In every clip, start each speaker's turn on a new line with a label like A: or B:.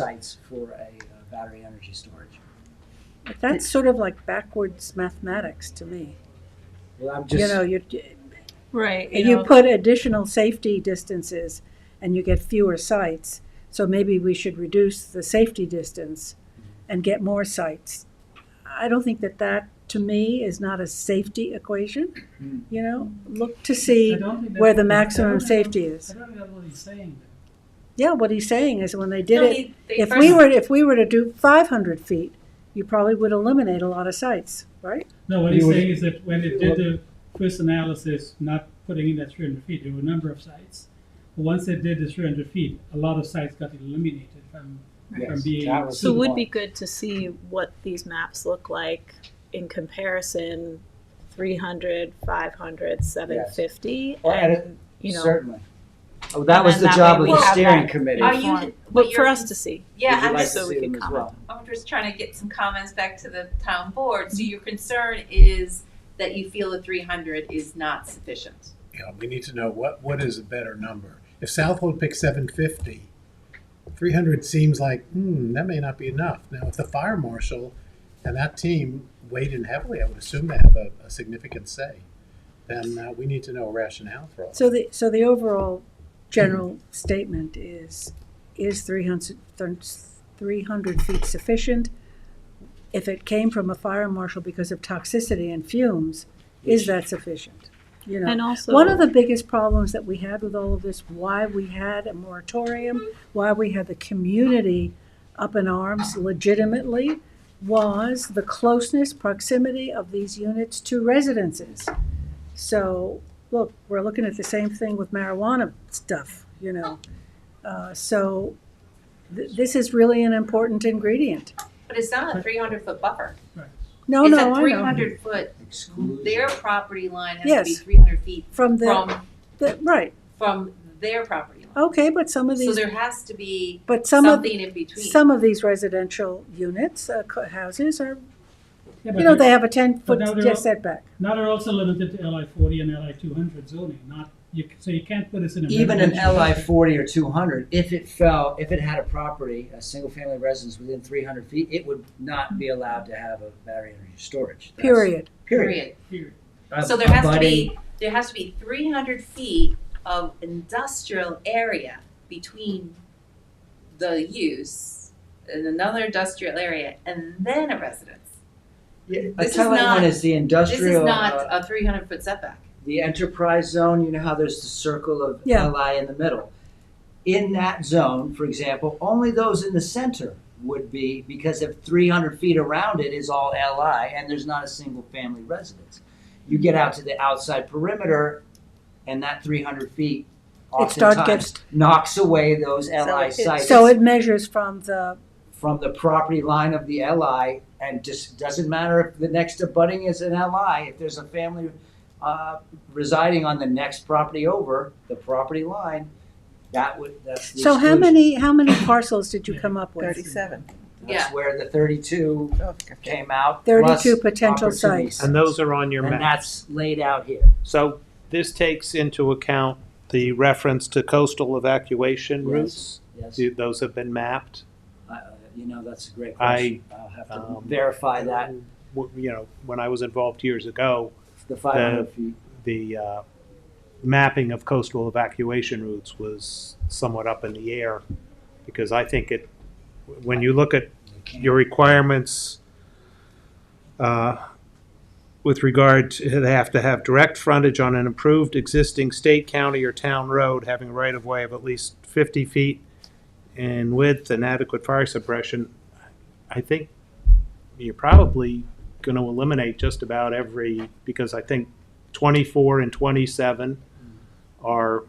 A: sites for a uh, battery energy storage.
B: But That's sort of like backwards mathematics to me.
A: Well, I'm
B: You
A: just,
B: know,
A: I
B: you,
C: Right.
B: you put additional safety distances and you get fewer sites. So maybe we should reduce the safety distance and get more sites. I don't think that that, to me, is not a safety equation,
D: Hmm.
B: you know? Look to
D: I
B: see
D: don't think that-
B: where the
D: I
B: maximum
D: don't think-
B: safety
D: I
B: is.
D: don't think that's what he's saying. though.
B: Yeah, what he's saying is when they did it, if
C: first,
B: we were, if we were to do five hundred feet, you probably would eliminate a lot of sites, right?
D: No, what
A: He
D: he's
A: was-
D: saying is that when it did the first analysis, not putting in that three hundred feet, there were a number of sites. But once they did the three hundred feet, a lot of sites got eliminated from, from
A: Yes,
D: being.
A: that was-
C: so it would be
A: Right.
C: good to see what these maps look like in comparison 300, 500, 750.
A: Or
C: and,
A: at
C: you know,
A: certainly. Oh, that was
C: And
A: the
C: that
A: job of
C: way
E: we
A: the
E: have
A: steering
E: that.
A: committee.
E: Are
A: Would
E: you-
C: inform-
E: what
C: but
E: you're-
C: for us to see.
E: Yeah,
A: you
E: I'm
A: like
E: just,
A: to
C: so we
A: see
C: can
A: them as
C: comment.
A: well?
E: I'm just trying to get some comments back to the town board. So your concern is that you feel the three hundred is not sufficient.
F: you know, we need to know what, what is a better number. If Southwold picks 750, 300 seems like, hmm, that may not be enough. Now, if the fire marshal and that team weighed in heavily, I would assume they have a, a significant say, then uh, we need to know a rationale for all
B: So the, so the overall general statement is, is 300 300 feet sufficient? If it came from a fire marshal because of toxicity and fumes, is that sufficient? You know,
C: And also,
B: one of the biggest problems that we had with all of this, why we had a moratorium, why we had the community up in arms legitimately, was the closeness, proximity of these units to residences. So, look, we're looking at the same thing with marijuana stuff, you know. Uh, so, th- this is really an important ingredient.
E: But it's not a three hundred foot buffer.
D: Right.
B: No,
E: it's
B: no,
E: a
B: I
E: three
B: know.
E: hundred foot.
A: Exclusion.
E: Their property line has to be
B: Yes.
E: three hundred feet
B: From the,
E: from
B: the, right,
E: from their property line.
B: okay, but some of
E: So
B: these,
E: there has to be
B: but some of,
E: something in between.
B: Some of these residential units, uh, co- houses are,
D: Yeah,
B: you know,
D: but
B: they have a ten foot
D: now they're all-
B: setback.
D: now they're also limited to LI forty and LI two hundred zoning, not, you, c- so you can't put this in a.
A: Even an
D: residential
A: LI
D: district.
A: forty or two hundred, if it fell, if it had a property, a single family residence within three hundred feet, it would not be allowed to have a battery energy storage. That's-
B: Period.
A: Period.
D: Period.
E: So there has to
A: Abutting-
E: be, there has to be three hundred feet of industrial area between the use and another industrial area and then a residence.
A: Yeah,
E: this
A: a
E: is
A: telling
E: not-
A: one is the
E: This is
A: industrial.
E: not
A: uh,
E: a three hundred foot setback.
A: the enterprise zone, you know how there's the circle of
B: Yeah.
A: LI in the middle. In that zone, for example, only those in the center would be because if 300 feet around it is all LI and there's not a single family residence. You get out to the outside perimeter and that 300 feet
B: It start
A: oftentimes
B: gets,
A: knocks away those LI
C: it-
A: sites
B: so it measures from the,
A: from the property line of the LI, and just doesn't matter if the next abutting is an LI, if there's a family uh, residing on the next property over the property line, that would, that's the
B: so how
A: exclusion.
B: many, how many parcels did you come up with?
G: Thirty-seven.
E: Yeah.
A: That's where the thirty-two
G: Oh, okay.
A: came out. plus
B: Thirty-two potential
A: opportunity
B: sites.
H: And those are on your
A: And
H: map.
A: that's laid out here.
H: So this takes into account the reference to coastal evacuation
A: Yes.
H: routes.
A: Yes,
H: Do- Those have been mapped.
A: I- you know, that's a great
H: I,
A: question. I'll have to
H: um,
A: verify that,
H: W- You know, when I was involved years ago,
A: the five hundred feet.
H: the uh, mapping of coastal evacuation routes was somewhat up in the air because I think it, when you look at
A: You can't-
H: your requirements uh, with regard to, they have to have direct frontage on an improved existing state, county, or town road having right-of-way of at least 50 feet in width and adequate fire suppression. I think you're probably going to eliminate just about every, because I think 24 and 27 are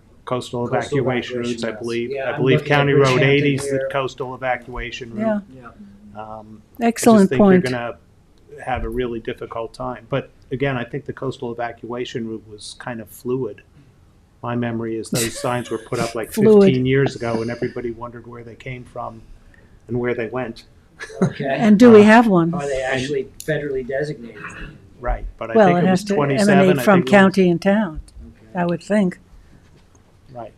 A: Coastal
H: coastal evacuation
A: evacuation
H: routes, I
A: routes.
H: believe.
A: Yeah,
H: I
A: I'm
H: believe
A: looking at
H: County Road
A: Bridgehampton
H: 80 is the
A: here.
H: coastal evacuation route.
B: Yeah,
A: Yeah.
H: Um, I just
B: excellent
H: think you're
B: point.
H: gonna have a really difficult time. But again, I think the coastal evacuation route was kind of fluid. My memory is those signs were put up like
B: Fluid.
H: fifteen years ago and everybody wondered where they came from and where they went.
A: Okay,
B: And do we have one?
A: are Oh, they actually federally designated?
H: Right, but I
B: Well,
H: think
B: it
H: it was
B: has to
H: twenty-seven. I
B: emanate from
H: think it was-
B: county and town,
A: Okay.
B: I would think.
H: Right.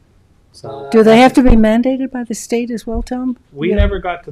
I: so.
B: Do they have to be mandated by the state as well, Tom?
D: We
B: Yeah.
D: never got to